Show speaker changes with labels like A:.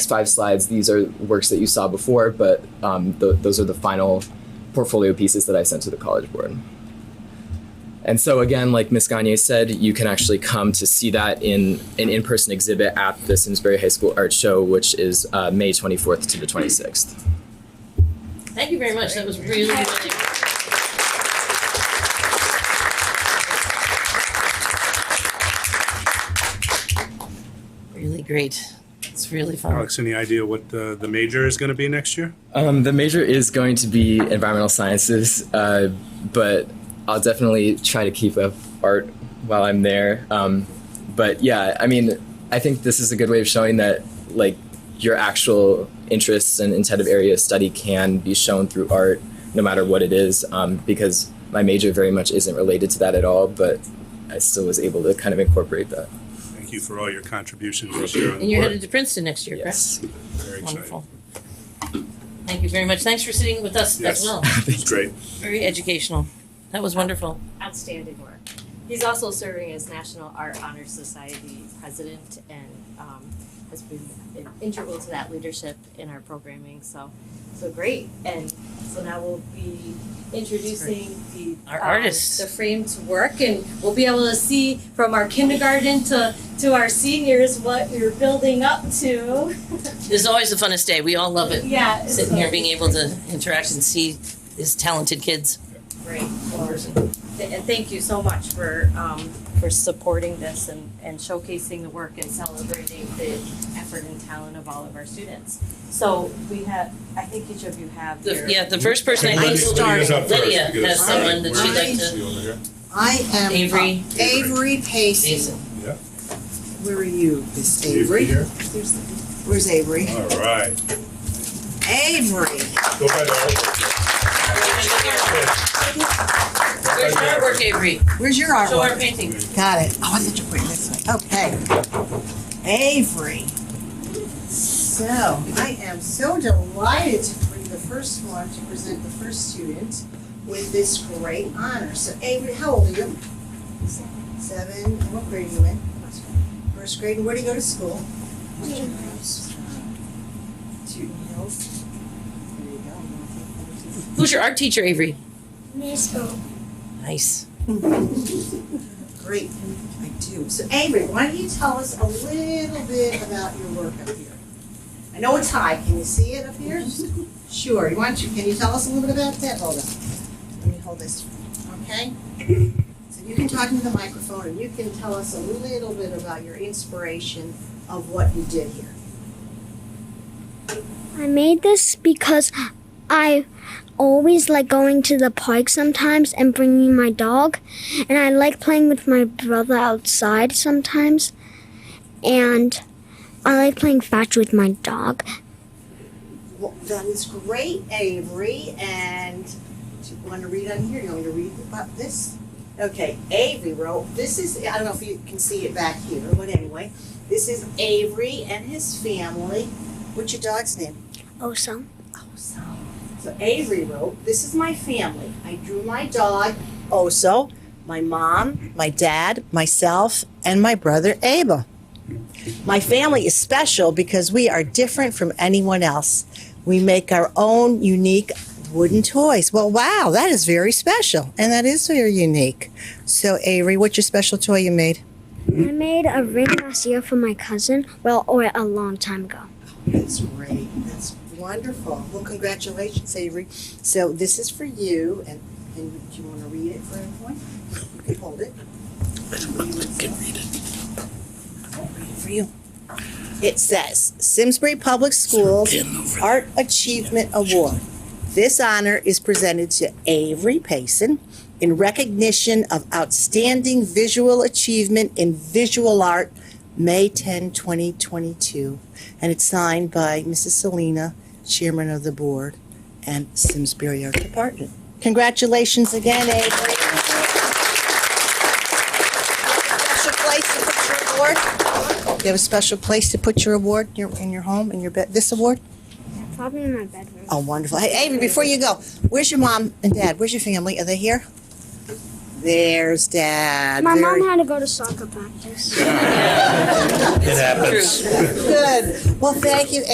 A: five slides, these are works that you saw before, but um, th- those are the final portfolio pieces that I sent to the College Board. And so again, like Ms. Gagne said, you can actually come to see that in an in-person exhibit at the Simsbury High School Art Show, which is uh, May 24th to the 26th.
B: Thank you very much. That was really, really. Really great. It's really fun.
C: Alex, any idea what the, the major is going to be next year?
A: Um, the major is going to be environmental sciences, uh, but I'll definitely try to keep up art while I'm there. Um, but yeah, I mean, I think this is a good way of showing that like your actual interests and intent of area of study can be shown through art, no matter what it is. Um, because my major very much isn't related to that at all, but I still was able to kind of incorporate that.
C: Thank you for all your contributions this year. on the
B: And you're
C: board.
B: headed to Princeton next year, correct?
A: Yes,
C: Very exciting.
B: Wonderful. Thank you very much. Thanks for sitting with us as
C: Yes.
B: well.
C: It's great.
B: Very educational. That was wonderful.
D: outstanding work. He's also serving as National Art Honor Society president and um, has been integral to that leadership in our programming. So, so great. And so now we'll be introducing the um,
B: Our artists.
D: the framed work, and we'll be able to see from our kindergarten to to our seniors what we are building up to.
B: This is always the funnest day. We all love it.
D: Yeah,
B: Sitting here, being able to interact and see these talented kids.
D: Great. Th- And thank you so much for, um, for supporting this and, and showcasing the work and celebrating the effort and talent of all of our students. So we have, I think each of you have
B: The-
D: your.
B: Yeah, the first person I think
C: Lydia's- Lydia's up first
B: Lydia
C: because-
B: has someone that she'd like to.
C: She over here.
E: I am
B: Avery.
E: Avery Pacey.
B: Jason.
E: Where are you, Miss
C: Avery
E: Avery?
C: here.
E: Where's Avery?
C: All right.
E: Avery.
C: Go by the
B: Where's your artwork, Avery?
E: Where's your
B: Show our
E: artwork?
B: painting.
E: Got it. Oh, I thought you were putting this way. Okay. Avery. So I am so delighted to bring the first one to present the first student with this great honor. So Avery, how old are you? Seven. And What grade are you in? First grade. And where do you go to school? Western Hills. Newton Hills. There you go.
B: Who's your art teacher, Avery?
E: Miss
B: Nice.
E: Great, I do. So Avery, why don't you tell us a little bit about your work up here? I know it's high, can you see it up here? Sure, why don't you, can you tell us a little bit about that? Hold on, let me hold this, okay? So you can talk into the microphone and you can tell us a little bit about your inspiration of what you did here.
F: I made this because I always like going to the park sometimes and bringing my dog, and I like playing with my brother outside sometimes, and I like playing fetch with my dog.
E: Well, that is great, Avery, and do you want to read on here? You want me to read about this? Okay, Avery wrote, this is, I don't know if you can see it back here, but anyway, this is Avery and his family. What's your dog's name?
F: Oh, so
E: Oso. So Avery wrote, This is my family. I drew my dog, Oso, my mom, my dad, myself, and my brother Abel. My family is special because we are different from anyone else. We make our own unique wooden toys. Well, wow, that is very special. And that is very unique. So, Avery, what's your special toy you made?
F: I made a ring last year for my cousin, well, or a long time ago.
E: That's great. That's wonderful. Well, congratulations, Avery. So this is for you, and, and do you want to read it for everyone? You can hold it.
G: for you.
E: It says Simsbury Public Schools Art Achievement Award. This honor is presented to Avery Payson in recognition of outstanding visual achievement in visual art, May 10, 2022. And it's signed by Mrs. Selena, Chairman of the Board, and Simsbury Art Department. Congratulations again, Avery. Special place to put your award. You have a special place to put your award in your, in your home, in your bed, this award?
F: Probably in my bedroom.
E: Oh, wonderful. Hey, Amy, before you go, where's your mom and dad? Where's your family? Are they here? There's dad.
F: My
E: Very
F: mom had to go to soccer practice.
C: It happens.
E: Good. Well, thank you,